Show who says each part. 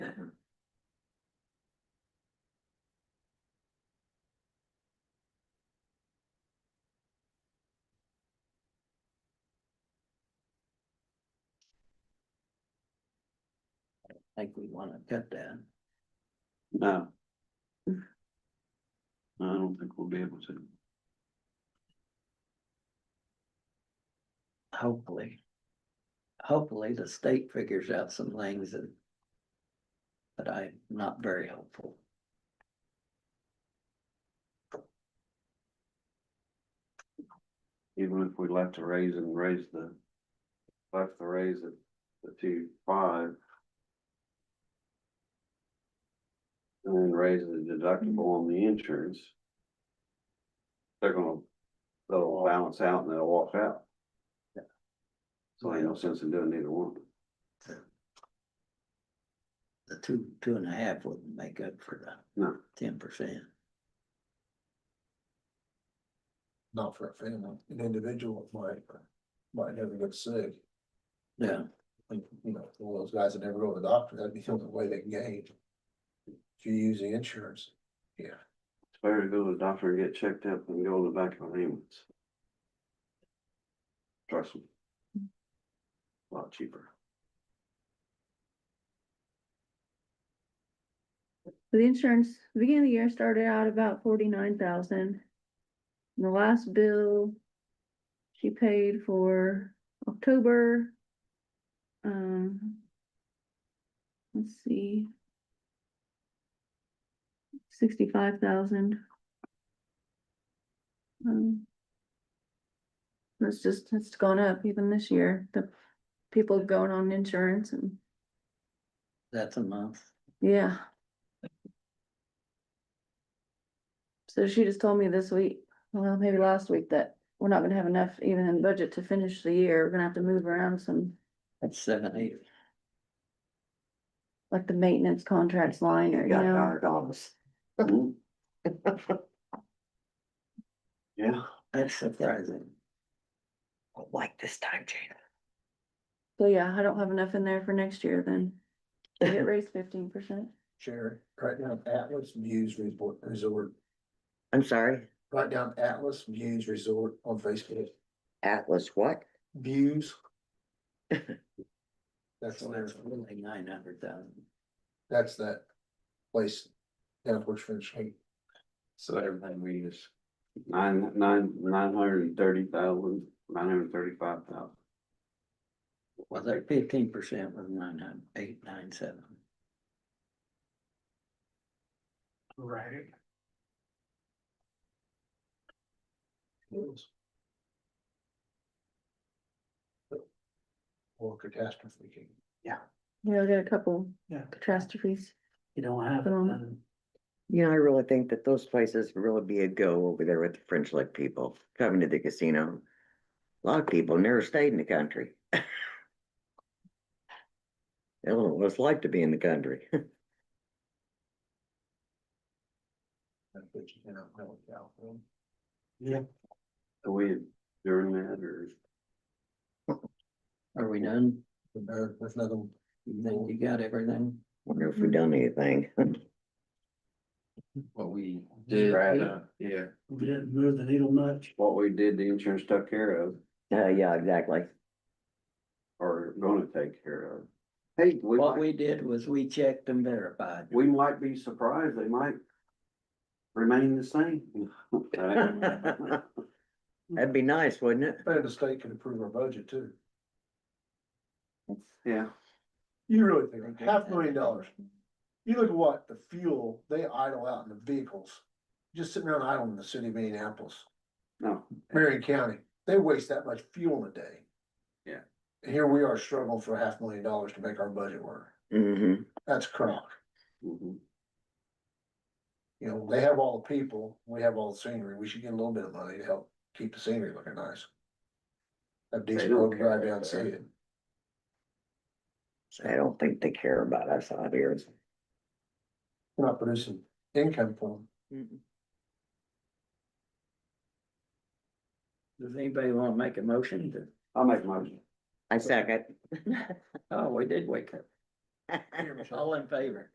Speaker 1: think we wanna cut that.
Speaker 2: No. I don't think we'll be able to.
Speaker 1: hopefully. Hopefully the state figures out some things and. But I'm not very hopeful.
Speaker 2: even if we left the raise and raise the, left the raise at the two five. And then raise the deductible on the insurance. They're gonna, they'll balance out and they'll walk out. So ain't no sense in doing either one.
Speaker 1: The two, two and a half wouldn't make up for the
Speaker 2: No.
Speaker 1: ten percent.
Speaker 3: not for a family, an individual might, might never get sick.
Speaker 1: Yeah,
Speaker 3: Like, you know, one of those guys that never go to the doctor, that'd be the only way they can gain. If you use the insurance, yeah.
Speaker 2: It's better to go to the doctor and get checked up than go to the back of an ambulance. Trust me. a Lot cheaper.
Speaker 4: The insurance, beginning of the year started out about forty-nine thousand. The last bill she paid for October. Um. Let's see. Sixty-five thousand. Um. It's just, it's gone up even this year, the people going on insurance and,
Speaker 1: that's a month.
Speaker 4: yeah. So she just told me this week, well, maybe last week, that we're not gonna have enough even in budget to finish the year, we're gonna have to move around some,
Speaker 1: That's seven, eight.
Speaker 4: like the maintenance contracts line or, you know.
Speaker 2: dollars. Yeah.
Speaker 1: That's surprising.
Speaker 5: like this time, Jane.
Speaker 4: So yeah, I don't have enough in there for next year then. We It raised fifteen percent.
Speaker 3: Sharon, write down Atlas Views Resort, Resort,
Speaker 5: I'm sorry,
Speaker 3: write down Atlas Views Resort on Facebook,
Speaker 5: Atlas what?
Speaker 3: views. That's
Speaker 1: So
Speaker 3: on there,
Speaker 1: that's really nine hundred thousand.
Speaker 3: that's that place, down towards French Creek.
Speaker 6: So everything we just,
Speaker 2: Nine, nine, nine hundred and thirty thousand, nine hundred and thirty-five thousand.
Speaker 1: Well, that fifteen percent was nine hundred, eight, nine, seven.
Speaker 6: right,
Speaker 3: Or catastrophe. king.
Speaker 4: You know, I got a couple
Speaker 6: Yeah.
Speaker 4: catastrophes.
Speaker 1: You don't have.
Speaker 4: Um,
Speaker 1: none.
Speaker 5: You know, I really think that those places would really be a go over there with the French Lick people coming to the casino. A lot of people never stayed in the country. They don't know what it's like to be in the country.
Speaker 3: That bitch, you know, that was California.
Speaker 2: Are we during that or?
Speaker 1: Are we done?
Speaker 3: There- There's another
Speaker 1: You think you got everything?
Speaker 5: Wonder if we done anything.
Speaker 6: what we did,
Speaker 2: Just right
Speaker 6: uh,
Speaker 2: up.
Speaker 6: yeah,
Speaker 1: We didn't move the needle much.
Speaker 2: What we did, the insurance took care of,
Speaker 5: Uh, yeah, exactly.
Speaker 2: or gonna take care of. Hey, we
Speaker 1: What
Speaker 2: might,
Speaker 1: we did was we checked and verified.
Speaker 2: we might be surprised, they might remain the same.
Speaker 5: That'd be nice, wouldn't it?
Speaker 3: And the state can approve our budget too.
Speaker 2: Yeah,
Speaker 3: You really think, half a million dollars. You look at what, the fuel they idle out in the vehicles, just sitting around idling in the city of Indianapolis,
Speaker 2: no,
Speaker 3: Marion County, they waste that much fuel in a day.
Speaker 2: Yeah.
Speaker 3: And Here we are struggling for half a million dollars to make our budget work.
Speaker 5: Mm-hmm.
Speaker 3: That's crock.
Speaker 2: mhm,
Speaker 3: You know, they have all the people, we have all the scenery, we should get a little bit of money to help keep the scenery looking nice. A decent
Speaker 2: don't
Speaker 3: road to
Speaker 2: care
Speaker 3: drive
Speaker 2: about
Speaker 3: down, and see
Speaker 2: that.
Speaker 3: it.
Speaker 5: I don't think they care about us out here.
Speaker 3: We're not producing income for them.
Speaker 1: Does anybody wanna make a motion to,
Speaker 2: I'll make mine.
Speaker 5: I second.
Speaker 1: oh, we did wake up,
Speaker 3: Here, Michelle.
Speaker 1: all in favor?